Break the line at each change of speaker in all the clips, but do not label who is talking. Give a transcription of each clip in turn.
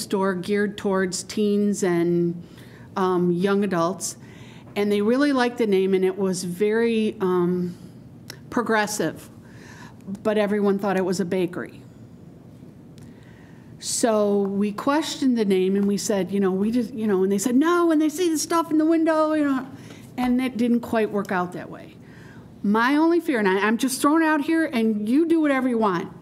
store geared towards teens and um, young adults. And they really liked the name, and it was very um, progressive. But everyone thought it was a bakery. So we questioned the name and we said, you know, we just, you know, and they said, no, and they see the stuff in the window, you know, and it didn't quite work out that way. My only fear, and I, I'm just thrown out here, and you do whatever you want.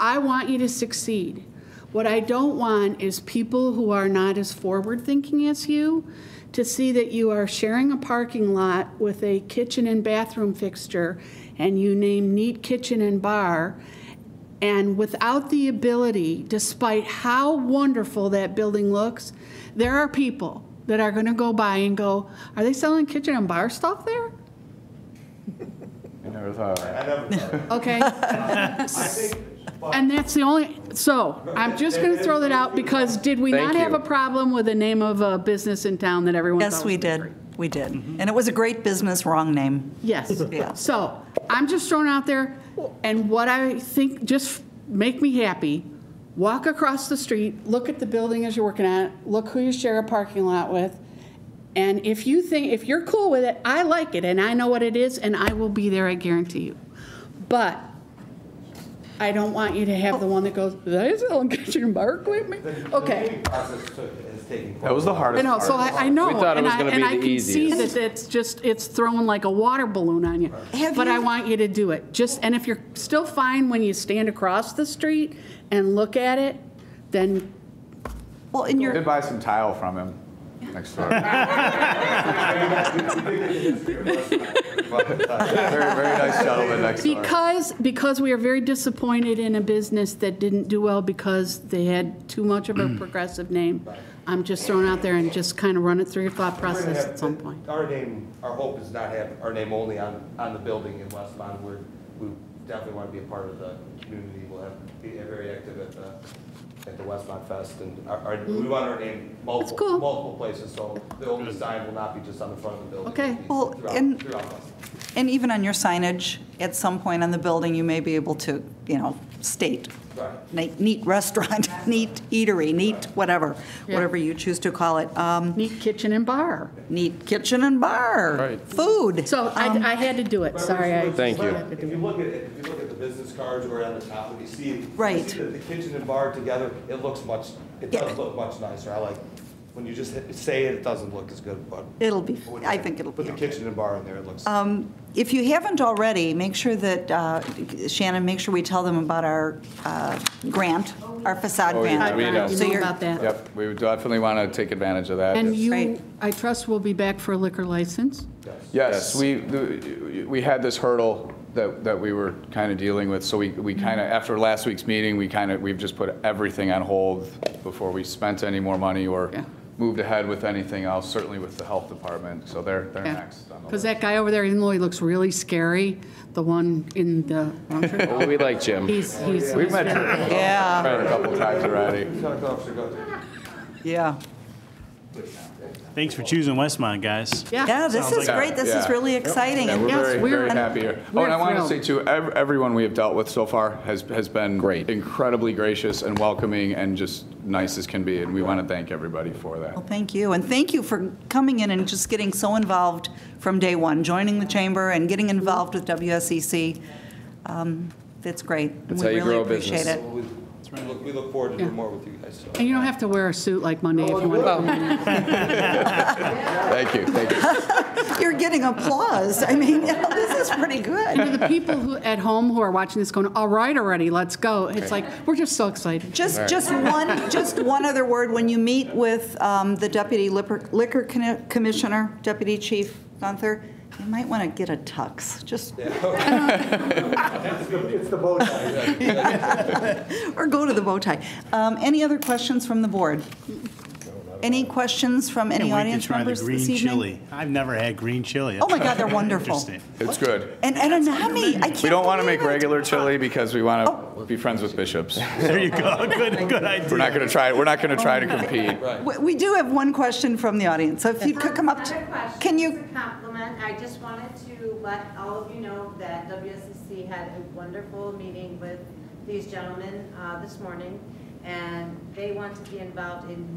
I want you to succeed. What I don't want is people who are not as forward thinking as you to see that you are sharing a parking lot with a kitchen and bathroom fixture and you name neat kitchen and bar and without the ability, despite how wonderful that building looks, there are people that are going to go by and go, Are they selling kitchen and bar stuff there?
I never thought of that.
I never thought of it.
Okay.
I think, but
And that's the only, so I'm just going to throw that out because did we
Thank
not have
you.
a problem with the name of a business in town that everyone
Yes,
thought
we
was
did.
different?
We did. And it was a great business, wrong name. Yeah.
Yes. So I'm just thrown out there, and what I think, just make me happy. Walk across the street, look at the building as you're working at it, look who you share a parking lot with. And if you think, if you're cool with it, I like it, and I know what it is, and I will be there, I guarantee you. But I don't want you to have the one that goes, they selling kitchen and bar equipment?
the
Okay.
naming process took- has taken quite
That was the
a while.
I
hardest
know,
part.
so I, I know.
We thought it
and
was
I-
gonna be
and I
the
can see
easiest.
that it's just, it's thrown like a water balloon on you.
Have
But
you-
I want you to do it. Just, and if you're still fine when you stand across the street and look at it, then
Well, in
Did
your,
buy some tile from him next door. Very, very nice gentleman next door.
because, because we are very disappointed in a business that didn't do well because they had too much of a
Mm.
progressive name, I'm just throwing out there and just kind of run it through your thought
We're gonna
process
have-
at some point.
Our name, our hope is not have our name only on, on the building in Westmont. We're, we definitely want to be a part of the community. We'll have, be very active at the, at the Westmont Fest and our, our, we want our name multiple,
Mm-hmm. cool.
multiple places. So the old design will not be just on the front of the building.
Okay.
It'll be
Well,
throughout-
and-
Throughout Westmont.
and even on your signage, at some point on the building, you may be able to, you know, state
Right.
neat neat restaurant, neat eatery, neat whatever,
Yeah.
whatever you choose to call it. Um,
Neat kitchen and bar.
Neat kitchen and bar.
Right.
Food.
So I,
Um,
I had to do it,
But
sorry.
it's-
I
it's
Thank
like,
you.
If you look at, it- if you look at the business cards right on the top, if you see. if you
Right.
see The the kitchen and bar together, it looks much, it
Yeah.
does look much nicer. I like, when you just hit- say it, it doesn't look as good, but.
It'll be,
when
I
you
think it'll be
Put the
okay. Um,
kitchen and bar in there, it looks.
If you haven't already, make sure that, uh, Shannon, make sure we tell them about our uh, grant, our facade
Oh, yeah,
grant.
we know.
You
So
know
you're-
about that.
Yep, we would definitely want to take advantage of that.
And
Right.
you, I trust will be back for a liquor license?
Yes, we, the- we had this hurdle that, that we were kind of dealing with, so we, we
Mm-hmm.
kind of, after last week's meeting, we kind of, we've just put everything on hold before we spent any more money or
Yeah.
moved ahead with anything else, certainly with the health department, so they're, they're next on the
Because that
list.
guy over there, even though he looks really scary, the one in the,
Well, we like Jim.
he's, he's.
We've met her
Yeah,
a couple times already.
Lieutenant Officer Guthrie.
yeah.
Thanks for choosing Westmont, guys.
Yeah, this is
like-
great. This is
Yeah.
really exciting.
Yeah, we're
Yes,
very,
we're-
very happy here. Oh,
we're
and I want
thrilled.
to say too, ev- everyone we have dealt with so far has, has been
Great.
incredibly gracious and welcoming and just nice as can be, and we want to thank everybody for that.
Well, thank you, and thank you for coming in and just getting so involved from day one, joining the chamber and getting involved with WSEC. Um, That's great. and
That's
we
how you
really
grow a
appreciate
business.
it.
We we look, we look forward to doing more with you guys. so.
And you don't have to wear a suit like Monday if you want. to.
Thank you, thank you.
You're getting applause. I mean, this is pretty
And
good.
to the people who, at home who are watching this going, all right already, let's go. It's like, we're just so excited.
Just, just one, just one other word. When you meet with um, the deputy liquor liquor Conne- commissioner, Deputy Chief Gunther, you might want to get a tux, just,
It's the bow tie.
or go to the bow tie. Um, Any other questions from the board? Any questions from any
Can't wait to
audience
try the
members this
green
evening?
chili. I've never had green chili.
Oh my God, Oh. they're wonderful.
Interesting.
It's good.
And Ananami, I can't.
We don't want to
believe
make
it.
regular chili because we want
Oh.
to be friends with bishops.
There you go. Good, good
We're
idea.
not going to try, we're not going to try to compete.
We- We do have one question from the audience, so if you could come up.
Not a
to
question,
Can
it's
you,
a compliment. I just wanted to let all of you know that WSCC had a wonderful meeting with these gentlemen uh, this morning, and they want to be involved in